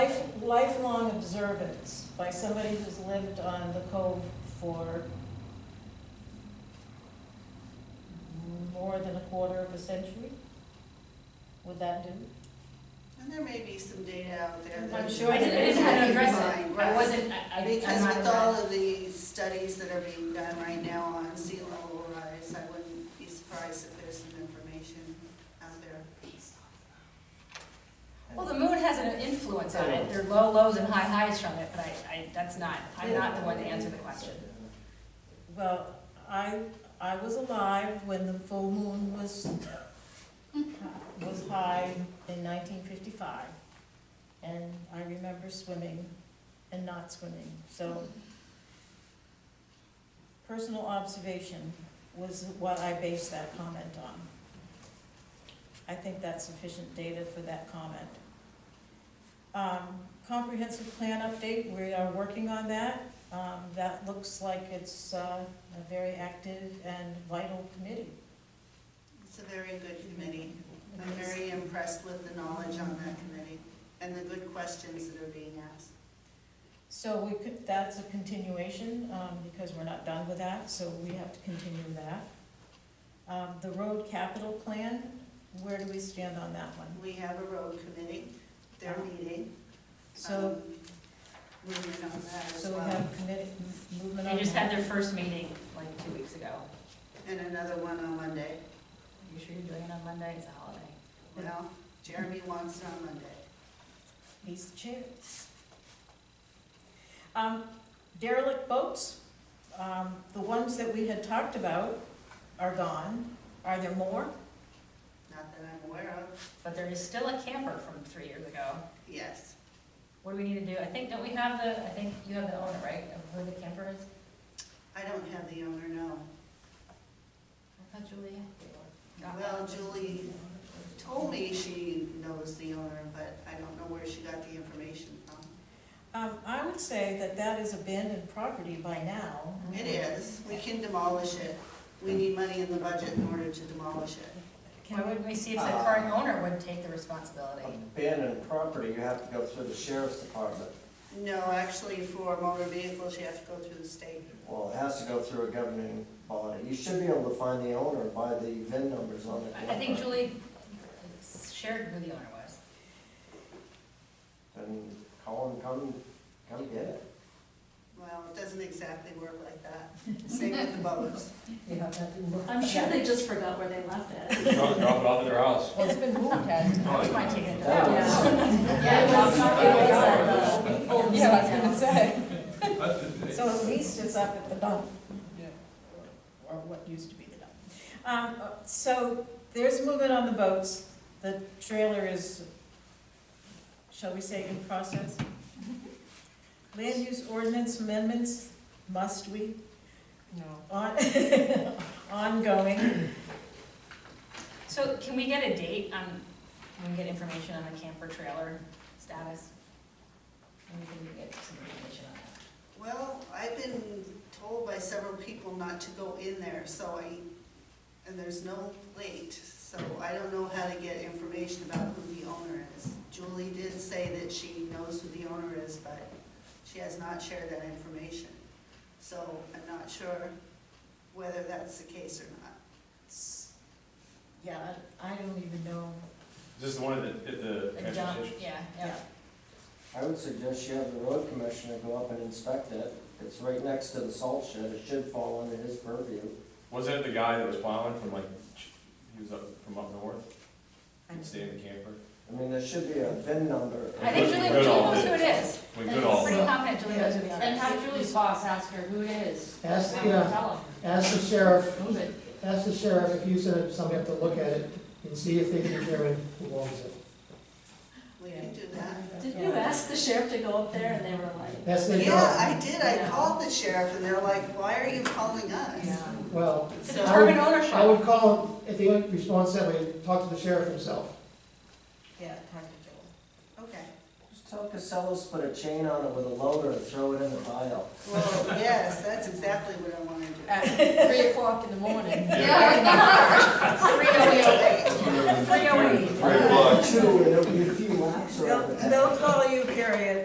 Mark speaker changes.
Speaker 1: lifelong observance by somebody who's lived on the cove for more than a quarter of a century? Would that do?
Speaker 2: And there may be some data out there. that-
Speaker 1: I'm sure
Speaker 3: I didn't, I didn't have to address it, I
Speaker 2: Right.
Speaker 3: wasn't, I, I- I'm
Speaker 2: Because
Speaker 3: not
Speaker 2: with all
Speaker 3: aware.
Speaker 2: of the studies that are being done right now on sea level rise, I wouldn't be surprised if there's some information out there.
Speaker 3: Well, the moon has an influence on it, there are low lows and high highs from it, but I, I, that's not, I'm not the one to answer the question.
Speaker 1: Well, I, I was alive when the full moon was, was high in nineteen fifty-five. And I remember swimming and not swimming, so personal observation was what I based that comment on. I think that's sufficient data for that comment. Um, comprehensive plan update, we are working on that. Um, that looks like it's, uh, a very active and vital committee.
Speaker 2: It's a very good committee. I'm very impressed with the knowledge on that committee and the good questions that are being asked.
Speaker 1: So we could, that's a continuation, um, because we're not done with that, so we have to continue that. Um, the road capital plan, where do we stand on that one?
Speaker 2: We have a road committee, they're meeting.
Speaker 1: So,
Speaker 2: um, Moving on that Um, as
Speaker 1: so we
Speaker 2: well.
Speaker 1: have committee movement on
Speaker 3: They just had
Speaker 1: that.
Speaker 3: their first meeting like two weeks ago.
Speaker 2: And another one on Monday.
Speaker 3: Are you sure you're doing it on Monday, it's a holiday?
Speaker 2: Well, Jeremy wants it on Monday.
Speaker 1: He's the chair. Um, derelict boats, um, the ones that we had talked about are gone. Are there more?
Speaker 2: Not that I'm aware of.
Speaker 3: But there is still a camper from three years ago.
Speaker 2: Yes.
Speaker 3: What do we need to do? I think, don't we have the, I think you have the owner, right, of who the camper is?
Speaker 2: I don't have the owner, no.
Speaker 3: I thought Julie had the owner.
Speaker 2: Well, Julie Told me she knows the owner, but I don't know where she got the information from.
Speaker 1: Um, I would say that that is abandoned property by now.
Speaker 2: It is, we can demolish it. We need money in the budget in order to demolish it.
Speaker 3: Why wouldn't we see if the current owner would take the responsibility?
Speaker 4: Abandoned property, you have to go through the sheriff's department.
Speaker 2: No, actually, for motor vehicles, you have to go through the state.
Speaker 4: Well, it has to go through a governing body. You should be able to find the owner by the VIN numbers on the.
Speaker 3: I I think Julie shared who the owner was.
Speaker 4: And call him, come, come get it.
Speaker 2: Well, it doesn't exactly work like that. Same with the boats.
Speaker 5: I'm sure they just forgot where they left it.
Speaker 6: Drop drop it off at their house.
Speaker 3: It's been moved, hasn't it?
Speaker 6: Oh,
Speaker 3: That's my take on
Speaker 4: That
Speaker 3: that.
Speaker 4: was-
Speaker 5: Yeah, it was- it was at the old
Speaker 3: Yeah, I was gonna
Speaker 5: museum.
Speaker 3: say.
Speaker 1: So at least it's up at the dump. Or what used to be the dump. Um, uh, so there's movement on the boats. The trailer is, shall we say, in process. Land use ordinance amendments, must we? No. On, ongoing.
Speaker 3: So can we get a date on, can we get information on the camper trailer status? Maybe we can get some information on that.
Speaker 2: Well, I've been told by several people not to go in there, so I, and there's no plate, so I don't know how to get information about who the owner is. Julie did say that she knows who the owner is, but she has not shared that information. So I'm not sure whether that's the case or not.
Speaker 1: Yeah, I I don't even know.
Speaker 6: This is the one at the, at the
Speaker 3: A
Speaker 6: transfer
Speaker 3: dump,
Speaker 6: station?
Speaker 3: yeah, yeah.
Speaker 4: I would suggest you have the road commissioner go up and inspect it. It's right next to the salt shed. It should fall under his purview.
Speaker 6: Was that the guy that was plowing from like, he was up, from up north, he'd stay in the camper?
Speaker 4: I mean, there should be a VIN number.
Speaker 3: I think Julie, Julie knows who it is.
Speaker 6: When
Speaker 5: And
Speaker 6: Goodall,
Speaker 3: Pretty confident Julie knows who the owner
Speaker 5: And
Speaker 3: is.
Speaker 5: have Julie's boss ask her who it is.
Speaker 7: Ask
Speaker 5: Have
Speaker 7: the,
Speaker 5: her
Speaker 7: uh,
Speaker 5: tell
Speaker 7: Ask the
Speaker 5: 'em.
Speaker 7: sheriff,
Speaker 5: Move it.
Speaker 7: ask the sheriff if you sent somebody up to look at it and see if they can determine who owns it.
Speaker 2: We can do that.
Speaker 5: Did you ask the sheriff to go up there and they were like,
Speaker 7: That's their job.
Speaker 2: Yeah, I did, I called the sheriff, and they're like, why are you calling us?
Speaker 7: Well,
Speaker 3: To
Speaker 2: So,
Speaker 3: determine
Speaker 7: I
Speaker 3: ownership.
Speaker 7: would call him, if they don't respond that way, talk to the sheriff himself.
Speaker 1: Yeah, talk to Joel.
Speaker 2: okay.
Speaker 4: Just tell Casellas, put a chain on it with a loader and throw it in the pile.
Speaker 2: Well, yes, that's exactly what I want to do.
Speaker 5: at three o'clock in the morning?
Speaker 2: Three oh eight.
Speaker 3: Three oh eight.
Speaker 6: Right, look.
Speaker 4: Two, and there'll be a few laps around the
Speaker 1: They'll, they'll call